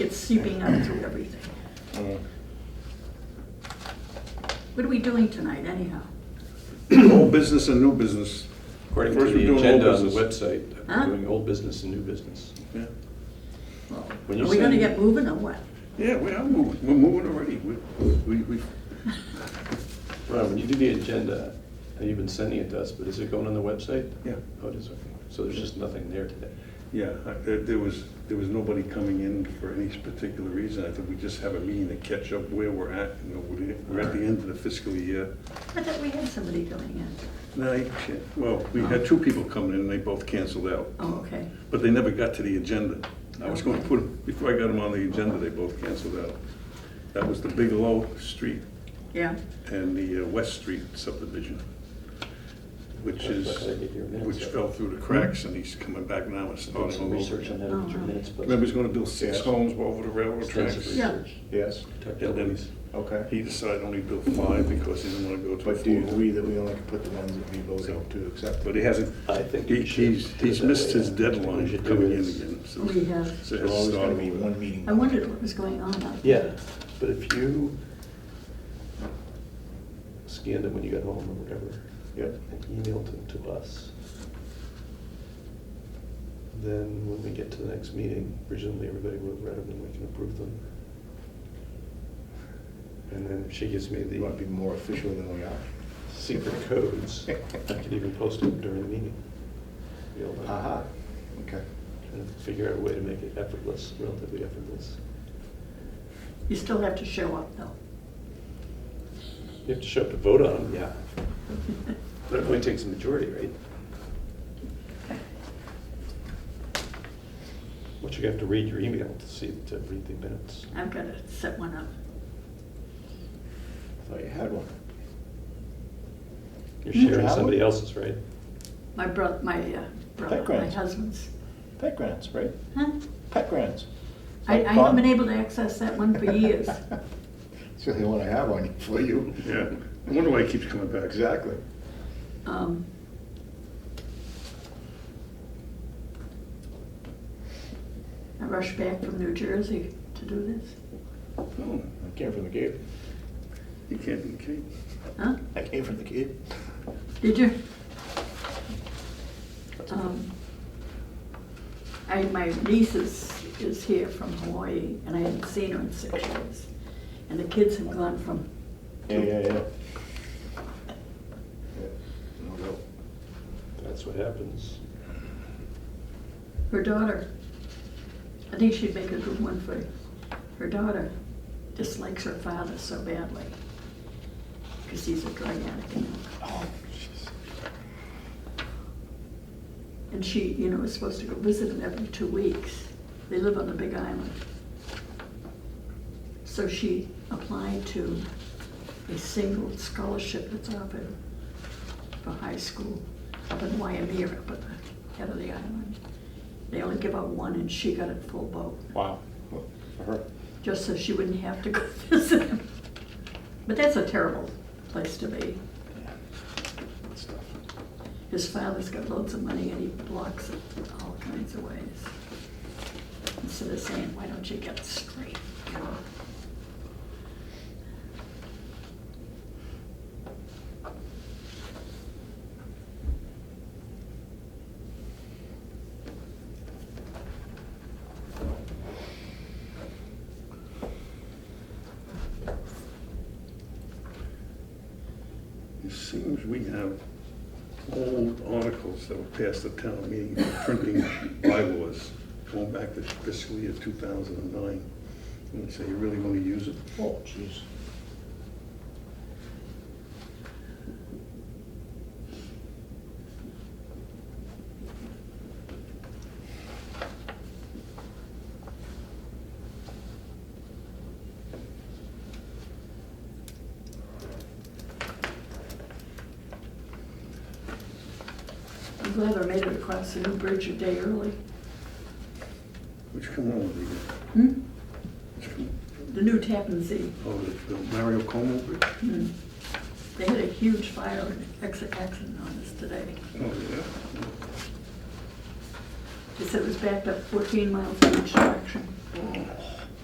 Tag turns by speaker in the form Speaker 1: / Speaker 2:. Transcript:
Speaker 1: It's seeping out through everything.
Speaker 2: Mm.
Speaker 1: What are we doing tonight anyhow?
Speaker 3: Old business and new business.
Speaker 2: According to
Speaker 3: First we're doing
Speaker 2: the
Speaker 3: old
Speaker 2: agenda on the
Speaker 3: business.
Speaker 2: website,
Speaker 1: Huh?
Speaker 2: I'm doing old business and new business.
Speaker 3: Yeah,
Speaker 1: Well,
Speaker 2: When you
Speaker 1: Are we gonna
Speaker 2: said-
Speaker 1: get moving or what?
Speaker 3: Yeah, we are moving, we're moving already. We, we, we-
Speaker 2: Ron, when you do the agenda, and you've been sending it to us, but is it going on the website?
Speaker 3: yeah,
Speaker 2: Oh, it is, okay. So there's just nothing there today.
Speaker 3: yeah, I- there, there was, there was nobody coming in for any particular reason. I think we just have a meeting to catch up where we're at, you know, we're, we're at the end of the fiscal year.
Speaker 1: I thought we had somebody coming in.
Speaker 3: No, I- shit. well, we had two people coming in and they both canceled out.
Speaker 1: Oh, okay.
Speaker 3: But they never got to the agenda. I was going to put, 'em- before I got them on the agenda, they both canceled out. That was the Bigelow Street
Speaker 1: Yeah,
Speaker 3: and the uh, West Street subdivision, which is, which fell through the cracks, and he's coming back now and
Speaker 2: Doing
Speaker 3: starting
Speaker 2: some
Speaker 3: all over.
Speaker 2: research on that in your
Speaker 1: Oh.
Speaker 2: minutes, but.
Speaker 3: Remember, he's gonna build six
Speaker 4: Yes.
Speaker 3: homes over the railroad
Speaker 2: Extensive
Speaker 3: tracks?
Speaker 1: Yeah.
Speaker 2: research.
Speaker 4: Yes,
Speaker 3: And then
Speaker 2: Protected.
Speaker 4: okay.
Speaker 3: he decided only build five because he didn't wanna go to four.
Speaker 4: But do you agree that we only can put the ones that we voted to accept?
Speaker 3: But he hasn't,
Speaker 2: I think
Speaker 3: he-
Speaker 2: you should
Speaker 3: he's,
Speaker 2: do it
Speaker 3: he's
Speaker 2: that
Speaker 3: missed
Speaker 2: way.
Speaker 3: his
Speaker 2: What we
Speaker 3: deadline
Speaker 2: should do
Speaker 3: coming in
Speaker 2: is-
Speaker 3: again. so-
Speaker 1: we have,
Speaker 3: so
Speaker 4: There's
Speaker 3: it's
Speaker 4: always gonna
Speaker 3: started
Speaker 4: be
Speaker 3: over.
Speaker 4: one meeting.
Speaker 1: I wondered what was going on out there.
Speaker 2: Yeah, but if you scanned it when you got home or whatever,
Speaker 4: Yep.
Speaker 2: and emailed it to us, then when we get to the next meeting, presumably everybody will have read them and we can approve them. And then she gives me
Speaker 4: You want
Speaker 2: the
Speaker 4: to be more official than we are?
Speaker 2: secret codes. I could even post it during the meeting. You know,
Speaker 4: Aha, okay.
Speaker 2: Trying to figure out a way to make it effortless, relatively effortless.
Speaker 1: You still have to show up though.
Speaker 2: You have to show up to vote on them, yeah. But it only takes a majority, right? But you have to read your email to see, to read the minutes.
Speaker 1: I've gotta set one up.
Speaker 4: I thought you had one.
Speaker 2: You're
Speaker 4: You
Speaker 2: sharing
Speaker 4: have
Speaker 2: somebody
Speaker 4: one?
Speaker 2: else's, right?
Speaker 1: My brother, my uh, brother, my
Speaker 4: Background.
Speaker 1: husband's.
Speaker 4: Pet grants, right?
Speaker 1: Huh?
Speaker 4: Pet grants.
Speaker 1: I, I haven't been able to access that one for years.
Speaker 4: It's the only one I have on for you.
Speaker 3: Yeah, I wonder why he keeps coming back.
Speaker 4: Exactly.
Speaker 1: Um, I rushed back from New Jersey to do this.
Speaker 3: Oh,
Speaker 4: I came from the Cape.
Speaker 3: He can't, he can't.
Speaker 1: Huh?
Speaker 4: I came from the Cape.
Speaker 1: Did you? Um, I, my niece is, is here from Hawaii, and I haven't seen her in six years. And the kids have gone from,
Speaker 4: Yeah, yeah, yeah. Yeah, No doubt.
Speaker 2: That's what happens.
Speaker 1: her daughter, I think she'd make a good one for, her daughter dislikes her father so badly, because he's a drug addict. you know.
Speaker 4: Oh, jeez.
Speaker 1: And she, you know, is supposed to go visit him every two weeks. They live on the Big Island. So she applied to a single scholarship that's offered for high school up in Waimea, up at the head of the island. They only give out one, and she got it full boat,
Speaker 4: Wow. Well, For her.
Speaker 1: just so she wouldn't have to go visit him. But that's a terrible place to be.
Speaker 4: Yeah. Good stuff.
Speaker 1: His father's got loads of money and he blocks it all kinds of ways. Instead of saying, why don't you get straight? you know?
Speaker 3: It seems we have old articles that were passed at town meeting, printing bylaws, going back to fiscal year 2009. And they say, you really want to use it?
Speaker 4: Oh, jeez.
Speaker 1: I'm glad I made it across the New Bridge a day early.
Speaker 3: Which come on, the,
Speaker 1: Hmm?
Speaker 3: which come-
Speaker 1: The new Tappan Zee.
Speaker 3: oh, the the Mario Como Bridge?
Speaker 1: Hmm. They had a huge fire and ex- accident on us today.
Speaker 3: Oh, yeah.
Speaker 1: They said it was backed up 14 miles in each direction.
Speaker 3: Oh.